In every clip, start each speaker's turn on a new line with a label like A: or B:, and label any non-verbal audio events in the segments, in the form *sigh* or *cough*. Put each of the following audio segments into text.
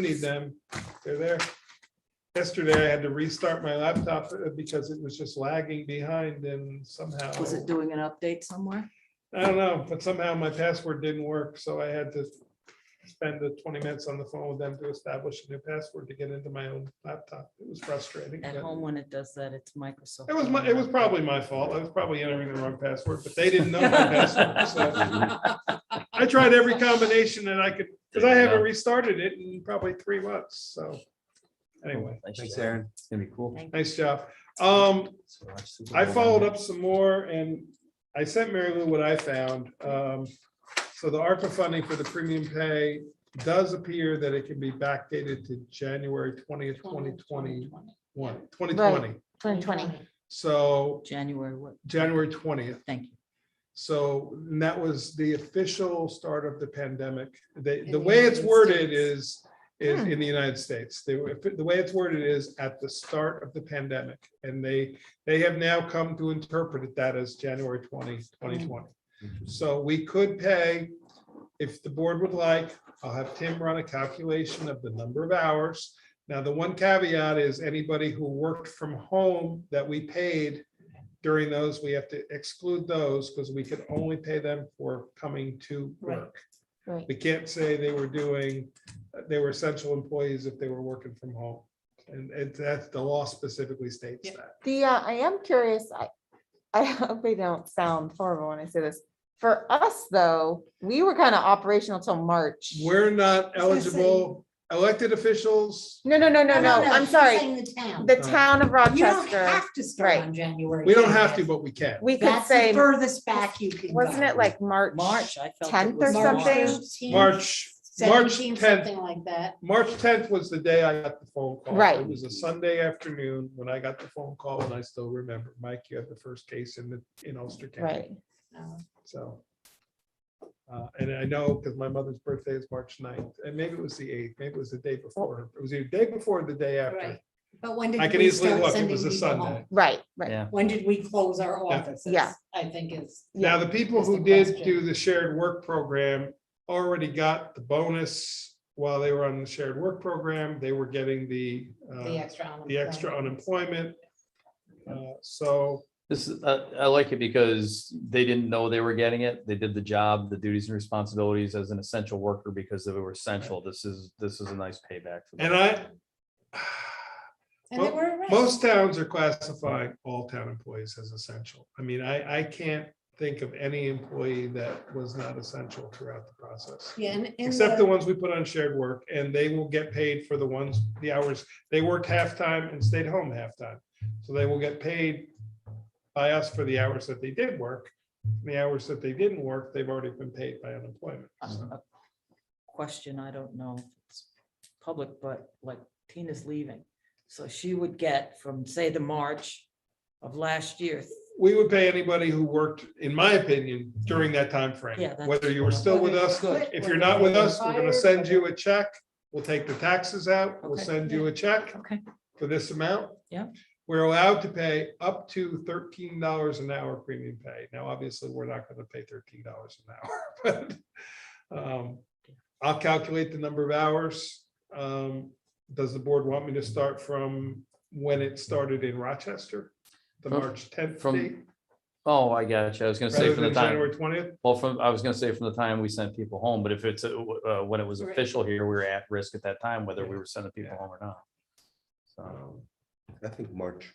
A: need them. They're there. Yesterday, I had to restart my laptop uh, because it was just lagging behind and somehow,
B: Was it doing an update somewhere?
A: I don't know, but somehow my password didn't work, so I had to spend the twenty minutes on the phone with them to establish a new password to get into my own laptop. It was frustrating.
B: At
A: but-
B: home, when it does that, it's Microsoft.
A: It was my, it was probably my fault. I was probably entering the wrong password, but they
B: *laughs*
A: didn't know my password. so. I tried every combination that I could, because I haven't restarted it in probably three months, so. Anyway.
C: Thanks, Aaron. It's gonna be cool.
A: Nice job. Um,
C: So watch Super
A: I
C: Bowl.
A: followed up some more and I sent Mary Lou what I found. Um, so the ARPA funding for the premium pay does appear that it can be backdated to January twentieth, twenty twenty one, twenty twenty.
D: Twenty twenty.
A: So
B: January, what,
A: January twentieth.
B: thank you.
A: So and that was the official start of the pandemic. The,
B: In
A: the
B: the
A: way it's
B: United
A: worded
B: States.
A: is, is
D: Hmm.
A: in the United States. The, the way it's worded is at the start of the pandemic. And they, they have now come to interpret it that as January 20, 2020. So we could pay, if the board would like, I'll have Tim run a calculation of the number of hours. Now, the one caveat is anybody who worked from home that we paid during those, we have to exclude those because we could only pay them for coming to work.
D: Right.
A: We can't say they were doing, they were essential employees if they were working from home. And and that's, the law specifically states that.
D: The, uh, I am curious, I, I *laughs* hope I don't sound horrible when I say this. For us, though, we were kind of operational till March.
A: We're not
E: I was gonna say-
A: eligible, elected officials,
D: No, no, no,
E: No,
D: no, no, I'm sorry.
E: The town.
D: The town of
E: You don't
D: Rochester,
E: have to start
D: Right.
E: on January.
A: we don't have to,
E: 20th.
A: but we can.
D: we could
E: That's the
D: say,
E: furthest back you can.
D: wasn't
E: go.
D: it like March?
B: March, I felt. it
D: 10th
B: was
D: or
E: March
B: March.
D: something?
E: 13th,
A: March, March 10th.
E: 17th, Something like that.
A: March tenth was the day I got the phone call.
D: Right.
A: It was a Sunday afternoon when I got the phone call and I still remember. Mike, you had the first case in the, in Ulster County,
D: Right,
E: No.
A: so. Uh, and I know because my mother's birthday is March 9th, and maybe it was the eighth, maybe it was the day
E: Oh.
A: before. It was the day before or the day after.
E: Right. But when did
A: I can
E: we
A: easily
E: start
A: look, it
E: sending
A: was a
E: people
A: Sunday.
E: home?
D: right, right.
C: Yeah.
E: When did we close our offices?
D: Yeah.
E: I think is.
A: Now, the people
E: That's
A: who
E: the
A: did
E: question.
A: do the shared work program already got the bonus while they were on the shared work program. They were getting the, uh,
E: The extra.
A: the extra unemployment. Uh, So
C: This, is- I, I like it because they didn't know they were getting it. They did the job, the duties and responsibilities as an essential worker because they were essential. This is, this is a nice payback. for them.
A: And I,
E: And they were. right.
A: most towns are classifying all town employees as essential. I mean, I, I can't think of any employee that was not essential throughout the process.
E: Yeah, and. in
A: Except the ones we put on shared work and they will get paid for the ones, the hours, they worked halftime and stayed home halftime. So they will get paid by us for the hours that they did work. The hours that they didn't work, they've already been paid by unemployment. So-
B: A Question, I don't know if it's public, but like Tina's leaving. So she would get from, say, the March of last year.
A: we would pay anybody who worked, in my opinion, during that time frame.
B: Yeah, that's-
A: Whether you were still with us,
B: Good.
A: if you're not with us, we're gonna send you a check. We'll take the taxes out. We'll
B: Okay.
A: send you a check
B: Okay.
A: for this amount.
B: Yeah.
A: We're allowed to pay up to thirteen dollars an hour premium pay. Now, obviously, we're not gonna pay thirteen dollars an hour. *laughs* but, um, I'll calculate the number of hours. Um, Does the board want me to start from when it started in Rochester? The
C: From-
A: March tenth
C: from-
A: date?
C: Oh, I got you. I was gonna say
A: Rather
C: from the
A: than
C: time,
A: January twentieth,
C: well, from, I was gonna say from the time we sent people home, but if it's, uh, uh, when it was
E: Right.
C: official here, we were at risk at that time, whether
A: Yeah.
C: we were sending people
A: Yeah.
C: home or not. So,
F: I think March.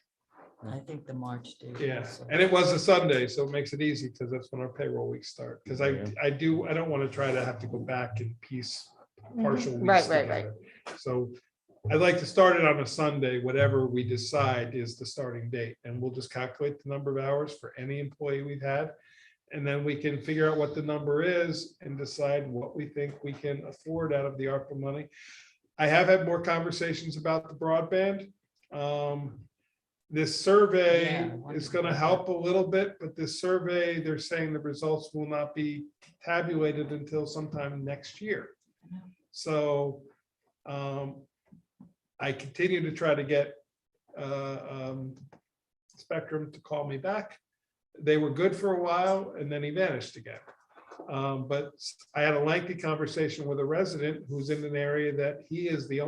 B: I think the March did.
A: yeah,
B: also.
A: and it was a Sunday, so it makes it easy, because that's when our payroll weeks start, because I,
C: Yeah.
A: I do, I don't want to try to have to go back and piece partial weeks
D: Mm-hmm. Right, right, right.
A: together. So I'd like to start it on a Sunday, whatever we decide is the starting date, and we'll just calculate the number of hours for any employee we've had. And then we can figure out what the number is and decide what we think we can afford out of the ARPA money. I have had more conversations about the broadband. Um, This survey
B: Yeah, I wondered
A: is gonna
B: about
A: help a little bit, but this survey, they're saying the results will not be tabulated until sometime next year.
B: I know.
A: So um, I continue to try to get uh, um, Spectrum to call me back. They were good for a while and then he vanished again. Um, But I had a lengthy conversation with a resident who's in an area that he is the